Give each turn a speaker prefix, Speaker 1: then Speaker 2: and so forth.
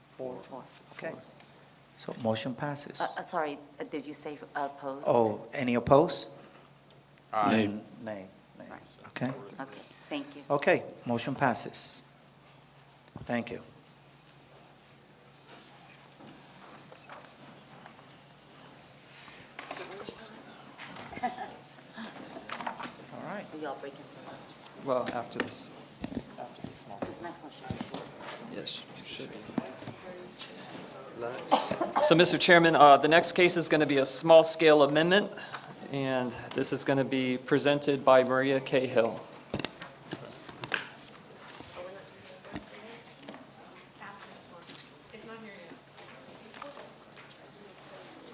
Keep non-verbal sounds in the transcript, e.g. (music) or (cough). Speaker 1: Four,
Speaker 2: Four.
Speaker 1: okay. So motion passes.
Speaker 2: Uh, uh, Sorry, uh, did you say opposed?
Speaker 1: Oh, any opposed?
Speaker 3: Aye.
Speaker 1: Nay, nay,
Speaker 2: Right.
Speaker 1: okay.
Speaker 2: Okay, thank you.
Speaker 1: Okay, motion passes. Thank you. (laughs) All right,
Speaker 2: We all breaking for lunch.
Speaker 3: Well, after this,
Speaker 2: This next one should be short.
Speaker 3: yes. So, Mr. Chairman, uh, the next case is going to be a small-scale amendment, and this is going to be presented by Maria Cahill.